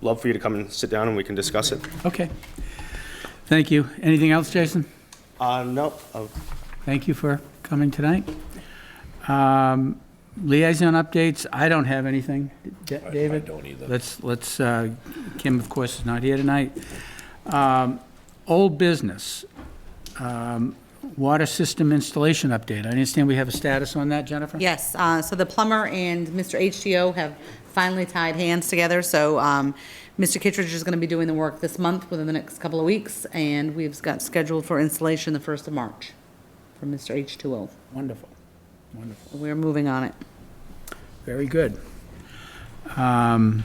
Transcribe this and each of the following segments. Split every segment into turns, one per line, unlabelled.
love for you to come and sit down and we can discuss it.
Okay. Thank you. Anything else, Jason?
Uh, no, uh,
Thank you for coming tonight. Um, Liaison updates, I don't have anything. Da- David?
I don't either.
Let's, let's, uh, Kim, of course, is not here tonight. Um, Old business, um, water system installation update. I understand we have a status on that, Jennifer?
Yes, uh, so the plumber and Mr. HTO have finally tied hands together, so um, Mr. Kittredge is going to be doing the work this month, within the next couple of weeks, and we've got scheduled for installation the 1st of March from Mr. H2O.
Wonderful, wonderful.
We're moving on it.
Very good. Um,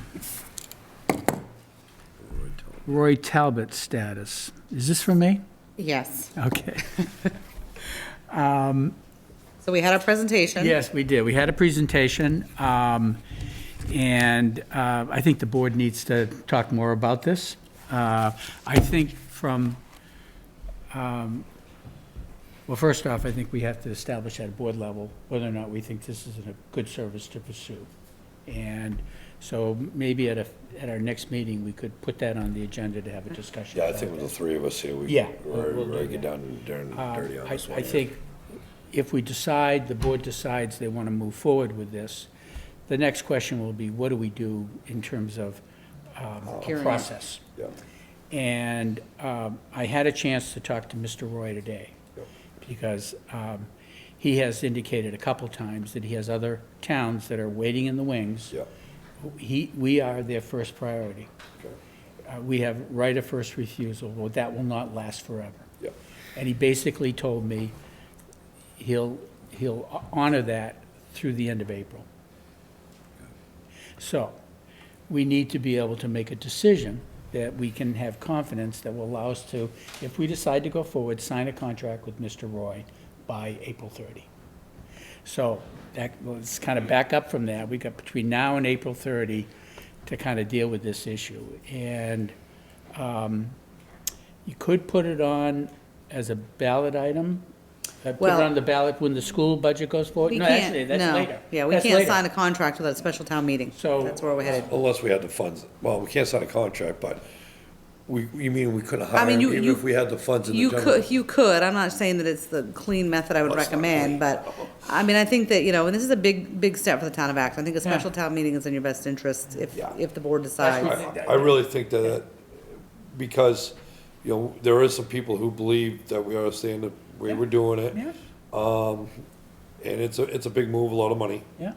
Roy Talbot status. Is this for me?
Yes,
Okay.
so we had our presentation.
Yes, we did. We had a presentation, um, and uh, I think the board needs to talk more about this. Uh, I think from, um, well, first off, I think we have to establish at a board level whether or not we think this is a good service to pursue. And so maybe at a, at our next meeting, we could put that on the agenda to have a discussion
Yeah, I
about
think with the three of us here, we.
Yeah,
We're,
we'll do
we're
that.
get down and dirty
Uh,
dirty on
I-
this one.
I
here.
think if we decide, the board decides they want to move forward with this, the next question will be, what do we do in terms of um,
Hearing it.
process?
Yeah.
And um, I had a chance to talk to Mr. Roy today, because um, he has indicated a couple times that he has other towns that are waiting in the wings.
Yeah.
He, we are their first priority.
Okay.
Uh, We have right of first refusal, well, that will not last forever.
Yeah.
And he basically told me he'll, he'll honor that through the end of April. So, we need to be able to make a decision that we can have confidence that will allow us to, if we decide to go forward, sign a contract with Mr. Roy by April 30. So that, let's kind of back up from that. We've got between now and April 30 to kind of deal with this issue. And um, you could put it on as a ballot item, uh, put it
Well-
on the ballot when the school budget goes forward.
We
No,
can't-
actually, that's
no.
later.
Yeah, we
That's
can't
later.
sign a contract without a special town meeting.
So-
That's where we're headed.
Unless we had the funds, well, we can't sign a contract, but we, you mean we couldn't hire
mean,
him
you-
even
you-
if we had the funds in the
You
general?
could, you could, I'm not saying that it's the clean method I would
Well, it's not
recommend,
clean.
but, I mean, I think that, you know, and this is a big, big step for the town of Acton. I think a special town meeting is in your best interest if,
Yeah.
if the board
what-
decides.
I I really think that, that- because, you know, there is some people who believe that we are saying that we were doing it.
Yeah.
And it's a, it's a big move, a lot of money,
Yeah,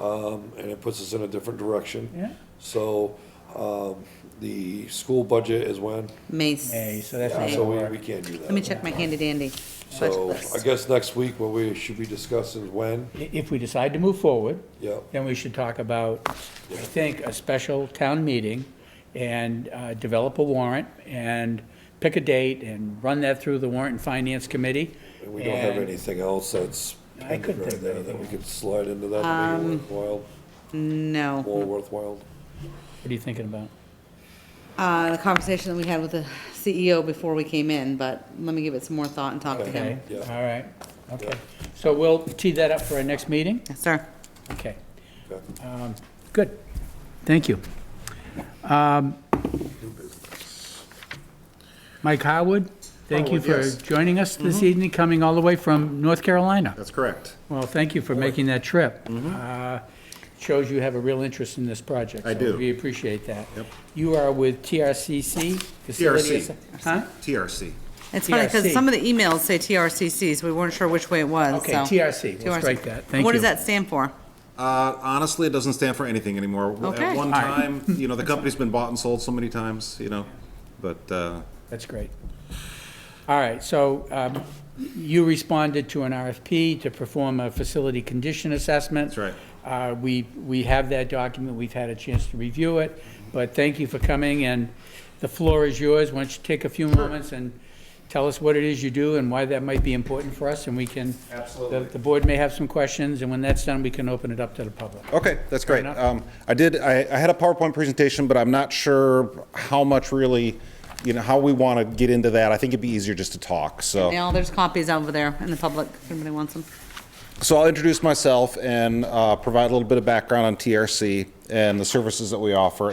um, and it puts us in a different direction.
yeah.
So, um, the school budget is when,
Mace.
May, so that's
Yeah,
not
so
gonna
we,
work.
we can't do that.
Let me check my handy dandy budget
So, I
list.
guess next week, what we should be discussing is when,
I- If we decide to move forward,
yeah,
then we should talk about, I think, a special town meeting and uh, develop a warrant and pick a date and run that through the warrant and finance committee.
and we don't have
And-
anything else that's
I
pending
couldn't
right
think of
there that
anything
we could slide into that, to make it worthwhile,
No,
more worthwhile.
What are you thinking about?
uh, the conversation that we had with the CEO before we came in, but let me give it some more thought and talk to
Okay,
him.
Yeah.
all right, okay.
Yeah.
So we'll tee that up for our next meeting?
Yes, sir.
Okay,
Okay.
good. Thank you. Um, Mike Howard, thank you for
Howard, yes.
joining us
Mm-hmm.
this evening, coming all the way from North Carolina.
That's correct.
Well, thank you for making that trip. Uh, Shows you have a real interest in this project.
Mm-hmm. I
so
do.
We appreciate that.
Yep.
You are with TRCC? Facility
TRC.
Assi- Huh?
TRC.
It's funny, because
TRC.
some of the emails say TRCC, so we weren't sure which way it was,
Okay,
so.
TRC. We'll
TRC.
strike that. Thank
What
you.
does that stand for?
Uh, honestly, it doesn't stand for anything anymore. W-
Okay.
At one
All right.
time, you know, the company's been bought and sold so many times, you know, but, uh,
That's great. All right, so um, you responded to an RFP to perform a facility condition assessment.
That's right.
Uh, We, we have that document, we've had a chance to review it, but thank you for coming, and the floor is yours. Why don't you take a few moments and tell us what it is you do and why that might be important for us, and we can.
Absolutely.
the- The board may have some questions, and when that's done, we can open it up to the public.
Okay, that's great.
enough.
Um, I did, I, I had a PowerPoint presentation, but I'm not sure how much really, you know, how we want to get into that. I think it'd be easier just to talk, so.
Now, there's copies over there in the public, if anybody wants them.
So I'll introduce myself and, uh, provide a little bit of background on TRC and the services that we offer